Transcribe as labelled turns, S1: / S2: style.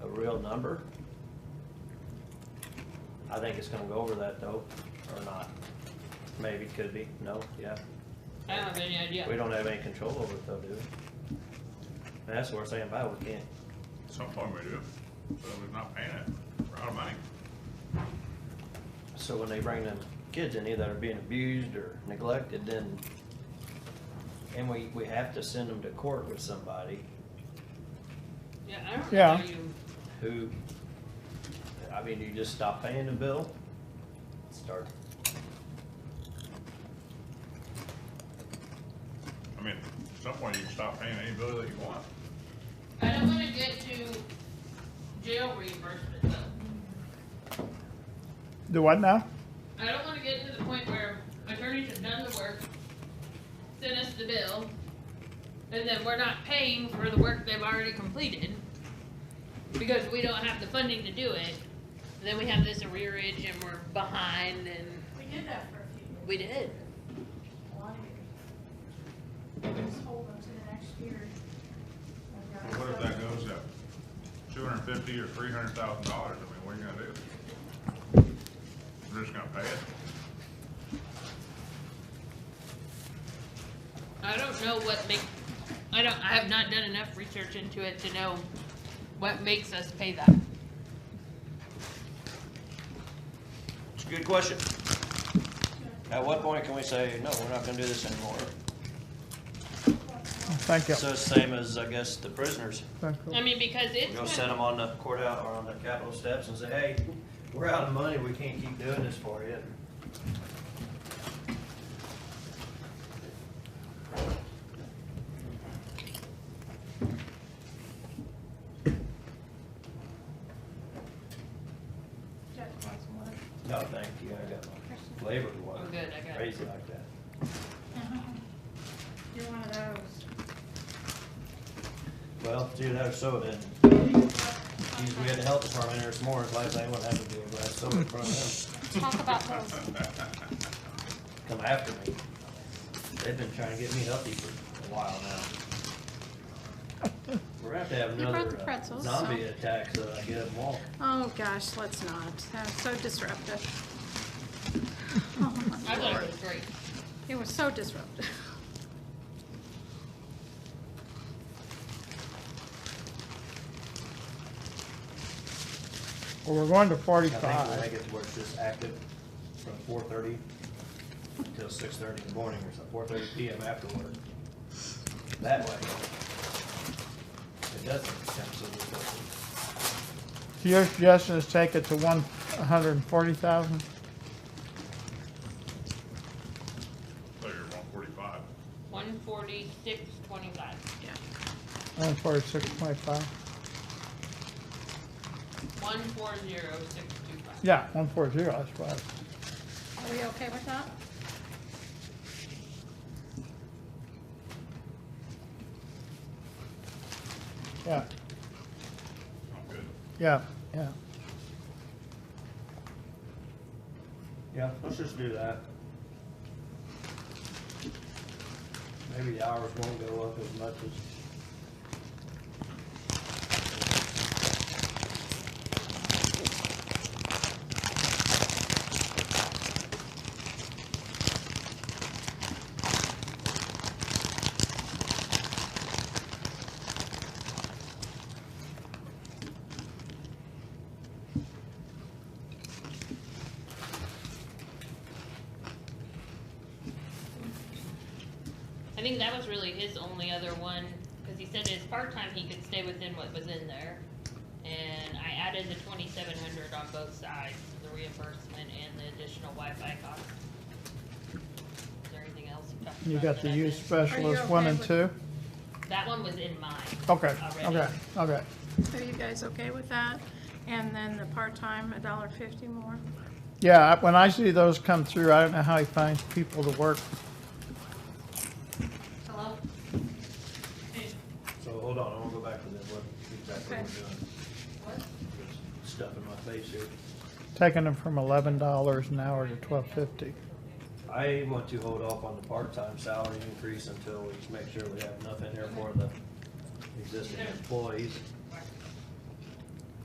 S1: number. I think it's gonna go over that though, or not. Maybe, could be, no, yeah.
S2: I don't have any idea.
S1: We don't have any control over it though, do we? And that's what we're saying, by we can't.
S3: Some form we do, so we're not paying it, we're out of money.
S1: So when they bring them kids in here that are being abused or neglected, then, and we, we have to send them to court with somebody
S2: Yeah, I don't know
S4: Yeah.
S2: how you,
S1: who, I mean, do you just stop paying the bill? Start,
S3: I mean, at some point you can stop paying any bill that you want.
S2: I don't wanna get to jail reimbursement though.
S4: Do what now?
S2: I don't wanna get to the point where attorneys have done the work, sent us the bill, and then we're not paying for the work they've already completed because we don't have the funding to do it. And Then we have this arrearage and we're behind and
S5: We did that for a few years,
S2: we did.
S5: a lot of years. Just hold them to the next year.
S3: Well, what if that goes up two hundred and fifty or three hundred thousand dollars, I mean, what are you gonna do? We're just gonna pay it,
S2: I don't know what make, I don't, I have not done enough research into it to know what makes us pay that.
S1: it's a good question. At what point can we say, no, we're not gonna do this anymore?
S4: Oh, Thank you.
S1: So it's same as, I guess, the prisoners.
S4: Thank you.
S2: I mean, because
S1: We
S2: it's,
S1: go
S2: kind
S1: set
S2: of-
S1: them on the courthouse, or on the Capitol steps and say, hey, we're out of money, we can't keep doing this for you.
S5: Jeff wants one.
S1: No, thank you, I got my labor to work.
S2: I'm good, I got it.
S1: Crazy like that.
S5: You're one of those.
S1: Well, dude, that was soda, and we had the health department here this morning, last night, wouldn't have to do a glass soda in front of them,
S6: Talk about those.
S1: come after me. They've been trying to get me healthy for a while now. We're gonna have to have
S6: You brought
S1: another
S6: the
S1: uh,
S6: pretzels,
S1: zombie
S6: so-
S1: attack, so I get them all.
S6: Oh, gosh, let's not. That's so disruptive. Oh, my
S2: I thought
S6: lord.
S2: it was great.
S6: It was so disruptive.
S4: Well, we're going to
S1: I think when I
S4: forty-five.
S1: get to work, just active from four thirty till six thirty in the morning, or four thirty PM afterward. That way. It doesn't become so difficult.
S4: So your suggestion is take it to one hundred and forty thousand?
S3: so you're one forty-five.
S2: One forty-six twenty-five.
S6: Yeah.
S4: One forty-six point five?
S2: One four zero six two five.
S4: Yeah, one four zero, that's what. I was-
S6: Are we okay with that?
S4: Yeah,
S3: I'm good.
S4: yeah, yeah.
S1: Yeah, let's just do that. Maybe the hours won't go up as much as,
S2: I think that was really his only other one, cause he said his part-time, he could stay within what was in there. And I added the twenty-seven hundred on both sides, the reimbursement and the additional Wi-Fi cost. Is there anything else you talked about?
S4: You got
S2: that
S4: the
S2: I
S4: youth
S2: missed?
S4: specialist one
S6: okay
S4: and
S6: with-
S4: two?
S2: That one was in mine.
S4: Okay,
S2: Already.
S4: okay, okay.
S6: Are you guys okay with that? And then the part-time, a dollar fifty more?
S4: Yeah, I- when I see those come through, I don't know how he finds people to work.
S2: Hello?
S1: so hold on, I wanna go back to that, what exactly we're
S6: Okay.
S1: doing. Just Stuff in my face here.
S4: Taking them from eleven dollars an hour to twelve fifty.
S1: I want to hold off on the part-time salary increase until we make sure we have enough in there for the existing employees.